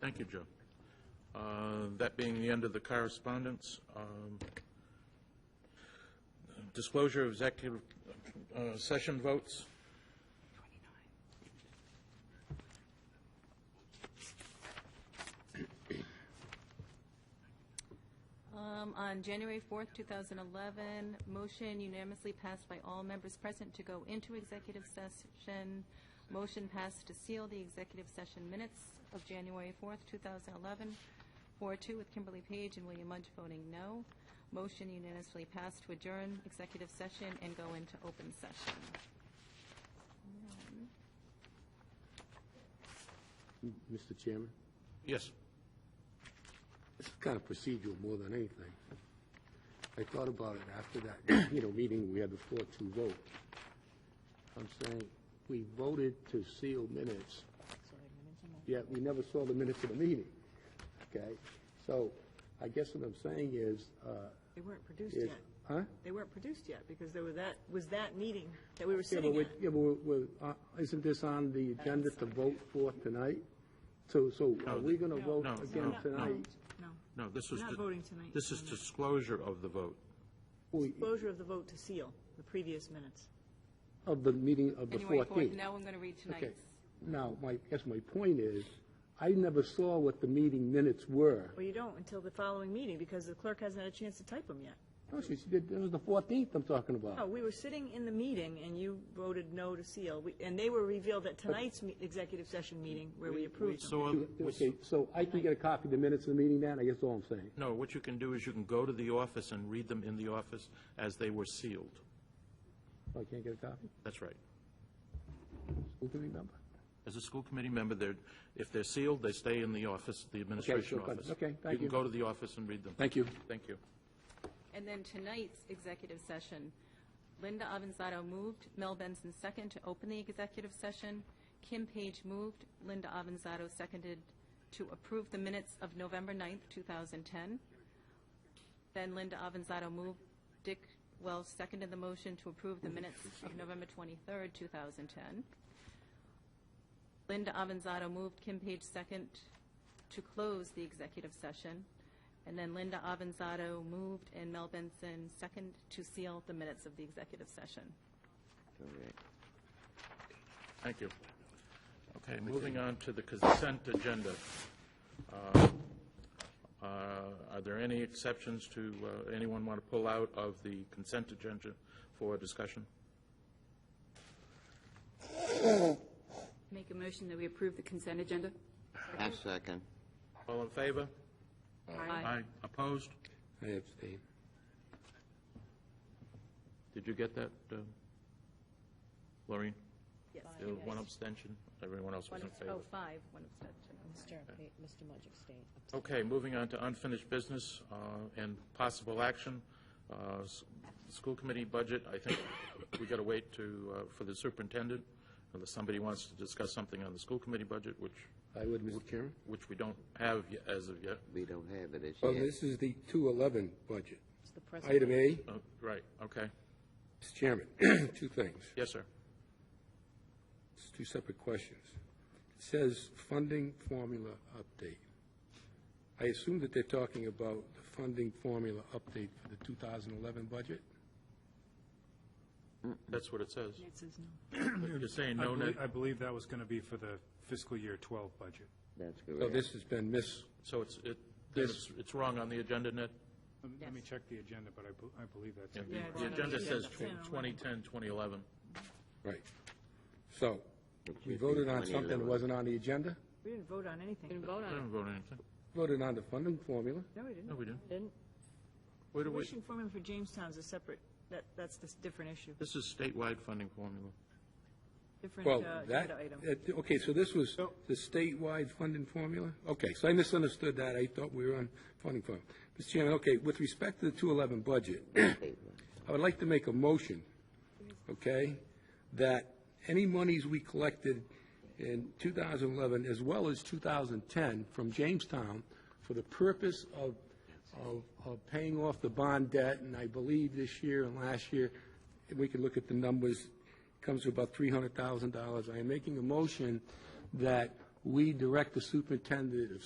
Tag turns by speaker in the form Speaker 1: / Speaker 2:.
Speaker 1: Thank you, Joe. Uh, That being the end of the correspondence, um, disclosure of executive uh, session votes.
Speaker 2: Um, On January 4th, 2011, motion unanimously passed by all members present to go into executive session. Motion passed to seal the executive session minutes of January 4th, 2011, 4-2 with Kimberly Page and William Mudge voting no. Motion unanimously passed to adjourn executive session and go into open session.
Speaker 3: Mr. Chairman,
Speaker 1: Yes.
Speaker 3: this is kind of procedural more than anything. I thought about it after that, you know, meeting, we had the four-two vote. I'm saying, we voted to seal minutes, yet we never saw the minutes of the meeting, okay? So I guess what I'm saying is, uh,
Speaker 4: They weren't produced
Speaker 3: is,
Speaker 4: yet.
Speaker 3: huh?
Speaker 4: They weren't produced yet, because there were that, was that meeting that we were
Speaker 3: Yeah, but
Speaker 4: sitting
Speaker 3: we,
Speaker 4: at.
Speaker 3: yeah, but we're- we're, uh, isn't this on the agenda to vote for tonight? So, so are we gonna vote
Speaker 1: no,
Speaker 3: again
Speaker 1: no,
Speaker 3: tonight?
Speaker 4: No.
Speaker 1: No, this was.
Speaker 4: We're not
Speaker 1: di-
Speaker 4: voting tonight.
Speaker 1: This is disclosure of the vote.
Speaker 3: We-
Speaker 4: Closure of the vote to seal the previous minutes.
Speaker 3: Of the meeting of the
Speaker 2: January
Speaker 3: 14th?
Speaker 2: 4th, now I'm going to read
Speaker 3: Okay.
Speaker 2: tonight's.
Speaker 3: Now, my, guess my point is, I never saw what the meeting minutes were.
Speaker 4: Well, you don't until the following meeting, because the clerk hasn't had a chance to type them yet.
Speaker 3: No, she, she did, it was the 14th I'm talking
Speaker 4: No,
Speaker 3: about.
Speaker 4: we were sitting in the meeting, and you voted no to seal, We- and they were revealed at tonight's me- executive session meeting, where we approved them.
Speaker 1: So, uh, what's-
Speaker 3: Okay, so I can get a copy of the minutes of the meeting then, I guess that's all I'm saying.
Speaker 1: no, what you can do is you can go to the office and read them in the office as they were sealed.
Speaker 3: Oh, I can't get a copy?
Speaker 1: That's right.
Speaker 3: Who can remember?
Speaker 1: As a school committee member, they're, if they're sealed, they stay in the office, the administration
Speaker 3: good.
Speaker 1: office.
Speaker 3: Okay, thank
Speaker 1: You can
Speaker 3: you.
Speaker 1: go to the office and read them.
Speaker 3: Thank you.
Speaker 1: Thank you.
Speaker 2: And then tonight's executive session, Linda Avanzado moved, Mel Benson second to open the executive session. Kim Page moved, Linda Avanzado seconded to approve the minutes of November 9th, 2010. Then Linda Avanzado moved, Dick Welch seconded the motion to approve the minutes of November 23rd, 2010. Linda Avanzado moved, Kim Page second, to close the executive session. And then Linda Avanzado moved and Mel Benson second to seal the minutes of the executive session.
Speaker 1: Thank you. Okay, moving on to the consent agenda. Uh, uh, Are there any exceptions to, uh, anyone want to pull out of the consent agenda for discussion?
Speaker 5: Make a motion that we approve the consent agenda?
Speaker 6: I second.
Speaker 1: All in favor?
Speaker 5: Aye.
Speaker 1: Opposed?
Speaker 3: I abstain.
Speaker 1: Did you get that, uh, Maureen?
Speaker 2: Yes.
Speaker 1: There was One abstention, everyone else was in favor.
Speaker 2: Oh, five, one abstention.
Speaker 7: Mr. Mr. Mudge abstained.
Speaker 1: Okay, moving on to unfinished business uh, and possible action. Uh, s- School committee budget, I think we got to wait to, uh, for the superintendent, unless somebody wants to discuss something on the school committee budget, which,
Speaker 3: I would, Mr. Chairman.
Speaker 1: which we don't have ye- as of yet.
Speaker 6: We don't have it as
Speaker 8: Oh,
Speaker 9: Well,
Speaker 6: yet.
Speaker 9: this is the 211 budget.
Speaker 7: It's the president.
Speaker 9: Item A,
Speaker 1: Uh, Right, okay.
Speaker 9: Mr. Chairman, two things.
Speaker 1: Yes, sir.
Speaker 9: It's two separate questions. It says funding formula update. I assume that they're talking about the funding formula update for the 2011 budget?
Speaker 1: That's what it says.
Speaker 4: It says no.
Speaker 1: You're saying
Speaker 8: I
Speaker 1: no,
Speaker 8: belie- I
Speaker 1: no,
Speaker 8: believe that was going to be for the fiscal year 12 budget.
Speaker 6: That's
Speaker 8: oh,
Speaker 9: So
Speaker 6: correct.
Speaker 9: this has been mis,
Speaker 1: so it's, it, then it's it's wrong on the agenda, Ned?
Speaker 8: Let me- Let me check the agenda, but I bel- I believe that's.
Speaker 1: Yeah,
Speaker 4: Yeah, it's
Speaker 1: The
Speaker 4: on the
Speaker 1: agenda says
Speaker 4: agenda.
Speaker 1: tw- 2010, 2011.
Speaker 9: right. So, we
Speaker 6: should
Speaker 9: voted
Speaker 6: be
Speaker 9: on something that
Speaker 6: 2011.
Speaker 9: wasn't on the agenda?
Speaker 4: We didn't vote on
Speaker 5: We
Speaker 4: anything.
Speaker 5: didn't vote
Speaker 1: I
Speaker 5: on it.
Speaker 1: didn't vote on anything.
Speaker 9: Voted on the funding formula?
Speaker 4: No, we
Speaker 1: No,
Speaker 4: didn't.
Speaker 1: we didn't.
Speaker 7: Didn't,
Speaker 1: Where do we,
Speaker 4: Tuition formula for Jamestown's is separate. That, that's this different issue,
Speaker 1: this is statewide funding formula.
Speaker 4: different
Speaker 9: Well,
Speaker 4: uh,
Speaker 9: that,
Speaker 4: agenda item.
Speaker 9: that- okay, so this was
Speaker 8: So-
Speaker 9: the statewide funding formula? Okay, so I misunderstood that, I thought we were on funding formula. Mr. Chairman, okay, with respect to the 211 budget, I would like to make a motion, okay, that any monies we collected in 2011, as well as 2010 from Jamestown, for the purpose of, of, of paying off the bond debt, and I believe this year and last year, we can look at the numbers, comes to about $300,000. I am making a motion that we direct the superintendent of